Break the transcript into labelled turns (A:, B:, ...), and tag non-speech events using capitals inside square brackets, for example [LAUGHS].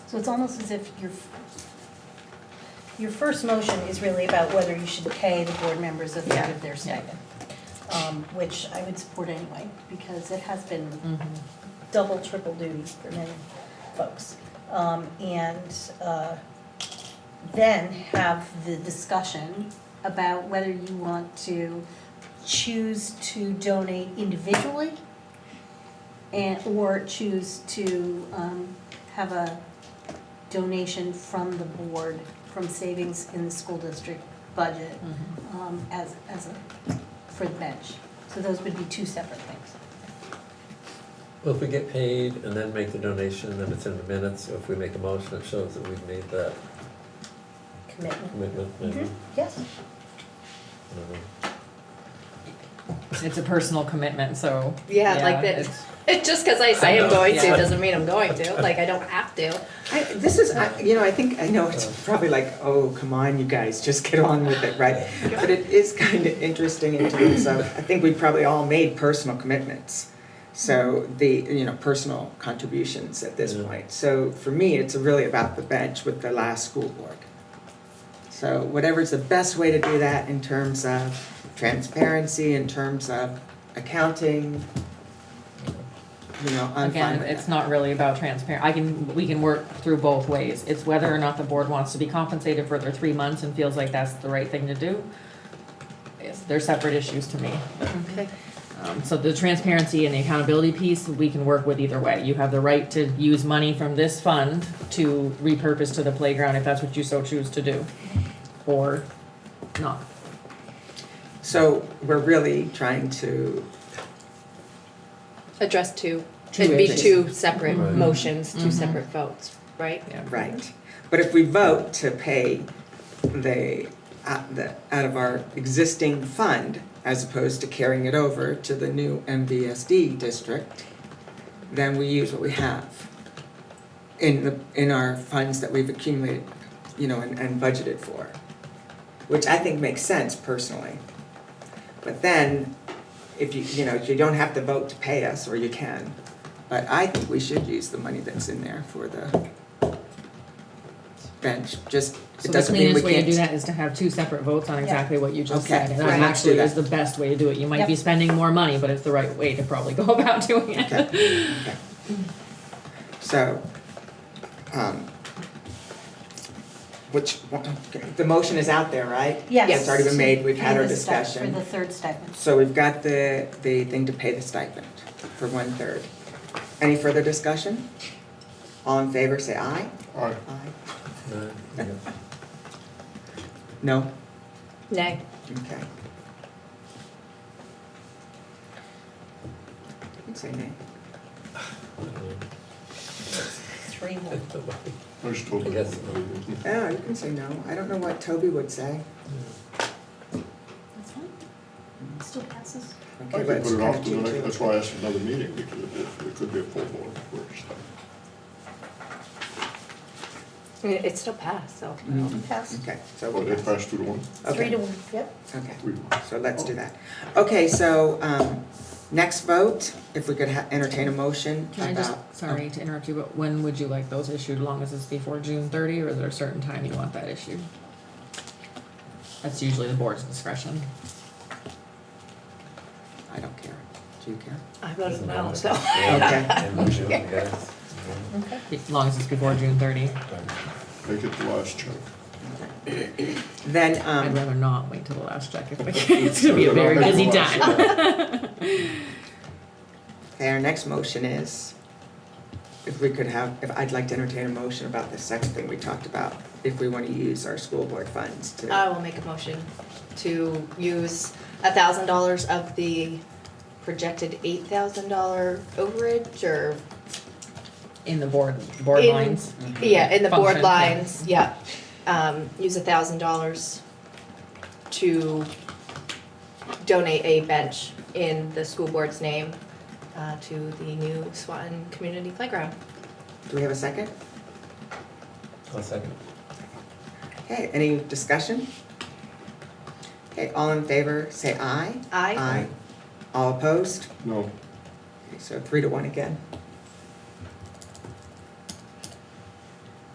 A: So it's almost as if your, your first motion is really about whether you should pay the board members a third
B: Yeah,
A: of their stipend. Um, Which I would support anyway, because it has been double, triple duty for many folks. Um, And uh, then have the discussion about whether you want to choose to donate individually and, or choose to um, have a donation from the board, from savings in the school district budget
B: Mm-hmm.
A: um, as, as a, for the bench. So those would be two separate things.
C: Well, if we get paid and then make the donation, then it's in the minutes, if we make a motion, it shows that we've made that
A: Commitment.
C: commitment, maybe, I
A: Mhm, Yes.
C: don't know.
B: It's a personal commitment, so.
D: Yeah, like that.
B: it's-
D: It just because I say
C: I
D: I'm
C: know,
D: going to
B: yeah.
D: doesn't mean I'm going
C: [LAUGHS]
D: to. Like I don't have to.
E: I, this is, I, you know, I think, I know it's probably like, oh, come on, you guys, just get on with it, right? But it is kind of interesting in terms of, I think we probably all made personal commitments. So the, you know, personal contributions at this
C: Yeah.
E: point. So for me, it's really about the bench with the last school board. So whatever's the best way to do that in terms of transparency, in terms of accounting, you know, I'm fine
B: Again,
E: with
B: it's
E: that.
B: not really about transparent, I can, we can work through both ways. It's whether or not the board wants to be compensated for their three months and feels like that's the right thing to do. It's- They're separate issues to me.
D: Okay.
B: Um, so the transparency and the accountability piece, we can work with either way. You have the right to use money from this fund to repurpose to the playground if that's what you so choose to do, or not.
E: So we're really trying to
D: Address two.
E: Two
D: It'd be
E: issues.
D: two separate
C: Right. Mm-hmm.
D: motions, 2
B: Mhm.
D: separate votes, right?
B: Yeah.
E: Right, but if we vote to pay the, out the, out of our existing fund, as opposed to carrying it over to the new MVSD district, then we use what we have in the, in our funds that we've accumulated, you know, and, and budgeted for, which I think makes sense personally. But then, if you, you know, you don't have to vote to pay us, or you can, but I think we should use the money that's in there for the bench, just,
B: So
E: it
B: the
E: doesn't mean we
B: cleanest way to do
E: can't.
B: that is to have two separate votes on exactly what you just
E: Okay,
B: said. And
E: right.
B: that
E: Let's do
B: actually is the
E: that.
B: best way to do it. You might be
A: Yep.
B: spending more money, but it's the right way to probably go [LAUGHS] about doing it.
E: Okay, okay. So, um, which, one- okay, the motion is out there, right?
A: Yes.
E: It's already been made, we've had
A: For
E: our
A: the stip-
E: discussion.
A: For the third stipend.
E: So we've got the, the thing to pay the stipend for one-third. Any further discussion? All in favor, say aye.
F: Aye.
E: Aye.
C: No, uh, yeah.
E: No?
D: Nay.
E: Okay. You'd say nay.
C: I don't know.
A: Three,
C: I
A: one.
C: don't know.
F: There's totally.
C: I guess-
E: Oh, you can say no. I don't know what Toby would say.
A: That's fine. Still passes.
F: I
E: Okay, but
F: could
E: it's
F: put it
E: kind
F: off
E: of
F: to the next,
E: two,
F: that's
E: two.
F: why I asked another meeting, because it, it could be a full board first.
D: I mean, it still passed, so.
C: Mm-hmm.
E: Mhm.
A: Pass.
E: Okay, so
F: But
E: we'll
F: it
E: pass.
F: passed two to one,
A: Three to
E: Okay,
A: one, yep.
E: okay.
F: three to one.
E: So let's do that. Okay, so, um, next vote, if we could ha- entertain a motion about. oh, um,
B: Can I just, sorry to interrupt you, but when would you like those issued? Long as it's before June thirty, or is there a certain time you want that issued? That's usually the board's discretion.
E: I don't care. Do you care?
D: I voted no, so.
C: Yeah,
E: Okay.
C: and we should, I guess. Mm-hmm.
A: Okay.
B: As long as it's before June thirty,
F: Make it the last check.
E: Then,
B: I'd
E: um,
B: rather not wait till the last check if
E: [LAUGHS]
B: we can. It's gonna be a very busy time.
E: okay, our next motion is if we could have, if I'd like to entertain a motion about the second thing we talked about, if we want to use our school board funds
D: I
E: to.
D: will make a motion to use a thousand dollars of the projected eight thousand dollar overage or,
B: [LAUGHS] In the board, board
D: In-
B: lines.
D: yeah, in the board
B: Function, yeah.
D: lines, yeah. Um, use a thousand dollars to donate a bench in the school board's name uh, to the new Swanton Community Playground.
E: Do we have a second?
C: I'll second.
E: Okay, any discussion? Okay, all in favor, say aye.
D: Aye.
E: All opposed?
F: No,
E: Okay, So three to one again.